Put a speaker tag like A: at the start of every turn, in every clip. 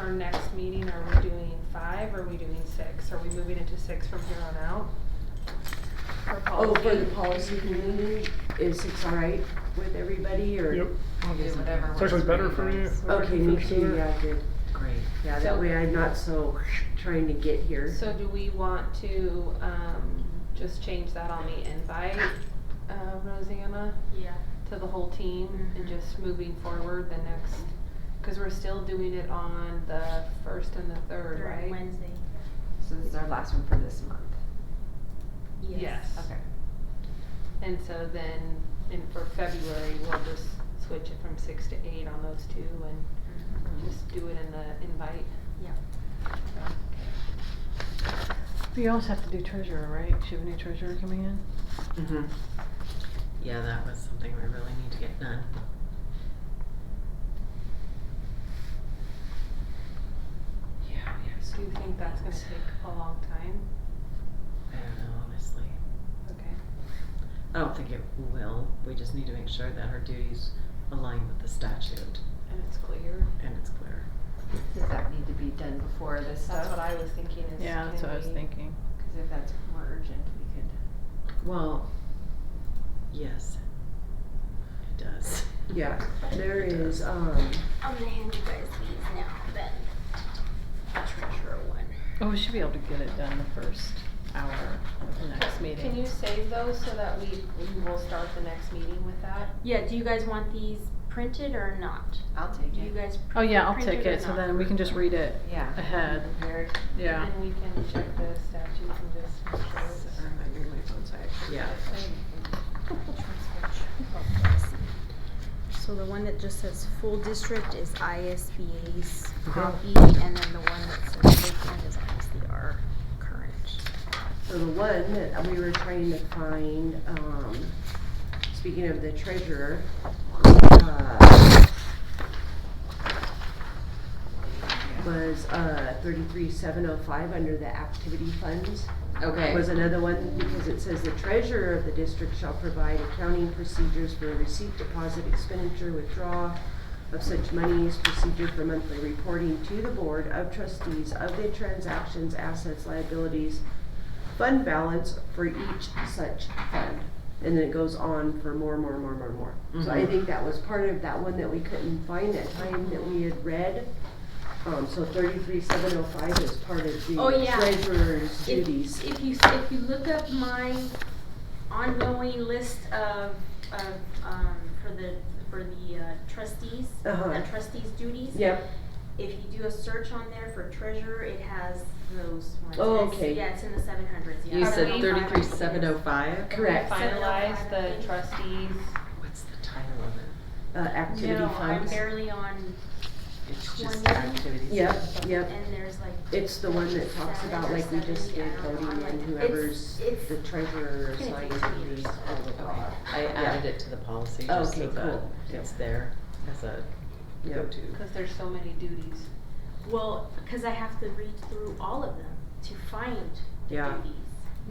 A: our next meeting, are we doing five, or are we doing six? Are we moving it to six from here on out? For
B: Oh, for the
A: policy?
B: policy committee, is it all right with everybody, or?
C: Yep,
D: I'll do whatever
C: it's
D: works
C: actually better
D: you
C: for me.
D: guys.
C: I
B: Okay, me
C: prefer
B: too,
C: sooner.
B: yeah, good,
D: Great.
B: yeah,
A: So-
B: that way I'm not so trying to get here.
A: Oh, So do we want to, um, just change that on the invite, uh, Rosanna,
E: Yeah.
A: to the whole team? And
E: Mhm.
A: just moving forward the next, cause we're still doing it on the first and the third,
E: Third
A: right?
E: Wednesday.
D: So this is our last one for this month.
A: Yes.
D: Okay.
A: And so then, in for February, we'll just switch it from six to eight on those two and
E: Mm-hmm.
A: just do it in the invite.
E: Yeah.
F: We also have to do treasurer, right? She have a new treasurer coming in?
B: Mhm.
D: Yeah, that was something we really need to get done. Yeah, we have.
A: Do you think that's gonna take a long time?
D: I don't know, honestly.
A: Okay.
D: I don't think it will. We just need to make sure that her duties align with the statute
A: And it's clear.
D: and it's clear.
G: Does that need to be done before this stuff?
A: That's
B: Uh,
A: what I was thinking is.
F: Yeah, that's
A: can
F: what I was
A: we-
F: thinking.
G: Cause if that's more urgent, we could.
D: Well, yes, it does.
B: Yeah, there is, um,
E: I'm gonna hand you guys these now, then. Treasurer one.
F: Oh, we should be able to get it done the first hour of the next meeting.
A: Can you save those so that we, we will start the next meeting with that?
E: Yeah, do you guys want these printed or not?
G: I'll take
E: Do you
G: it.
E: guys
F: Oh, yeah, I'll
E: print
F: take
E: or
F: it, so
E: not?
F: then we can just read it
G: Yeah.
F: ahead.
G: Prepared.
F: Yeah.
A: And we can check the statute and just make sure it's.
D: Sorry, my- my phone's high. Yeah.
E: So the one that just says full district is ISBA's
C: Mhm.
E: copy, and then the one that says vacant is obviously our current.
B: So the one that we were trying to find, um, speaking of the treasurer, uh, was, uh, thirty-three seven oh five under the activity funds.
G: Okay.
B: Was another one, because it says the treasurer of the district shall provide accounting procedures for receipt, deposit, expenditure, withdrawal of such monies, procedure for monthly reporting to the board of trustees of the transactions, assets, liabilities, fund balance for each such fund. And then it goes on for more, more, more, more, more. So I
E: Mm-hmm.
D: Mhm.
B: think that was part of that one that we couldn't find that time that we had read. Um, so thirty-three seven oh five is part of
E: Oh,
B: the
E: yeah.
B: treasurer's
E: If,
B: duties.
E: if you, if you look up my ongoing list of, of, um, for the, for the uh, trustees,
B: Uh-huh.
E: the trustees' duties.
B: Yep,
E: If you do a search on there for treasurer, it has those ones.
B: Oh,
E: It's-
B: okay.
E: Yeah, it's in the seven hundreds, yeah.
D: You
A: Are
D: said
A: we-
D: thirty-three seven oh five?
B: correct.
A: Finalize the trustees.
D: What's the title of it?
B: Uh, activity
E: No, I'm
B: funds.
E: barely on,
D: It's just
E: Twenty.
D: activities.
B: Yep, yep.
E: and there's like.
B: It's the one that talks
E: seven
B: about
E: or
B: like we just
E: seven,
B: did
E: yeah,
B: voting
E: I'm
B: and
E: like-
B: whoever's
E: it's-
B: the treasurer
E: it's gonna
B: assigned
E: take
B: to
E: me
B: these,
E: years.
B: all the.
D: Okay, I
B: Yeah.
D: added it to the policy just
B: Okay,
D: so that
B: cool. Yep.
D: it's there as a
B: Yep.
D: go-to.
A: Cause there's so many duties.
E: Well, cause I have to read through all of them to find
B: Yeah.
E: duties,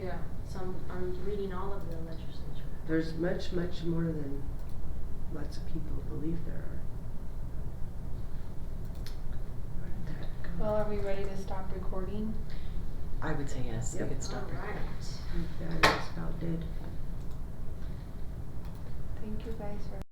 A: Yeah.
E: so I'm, I'm reading all of the legislature.
B: There's much, much more than lots of people believe there are. Where did that go?
A: Well, are we ready to stop recording?
D: I would say yes, we
B: Yep.
D: could stop
E: Alright.
D: recording.
B: Yeah, it's about dead.
A: Thank you guys for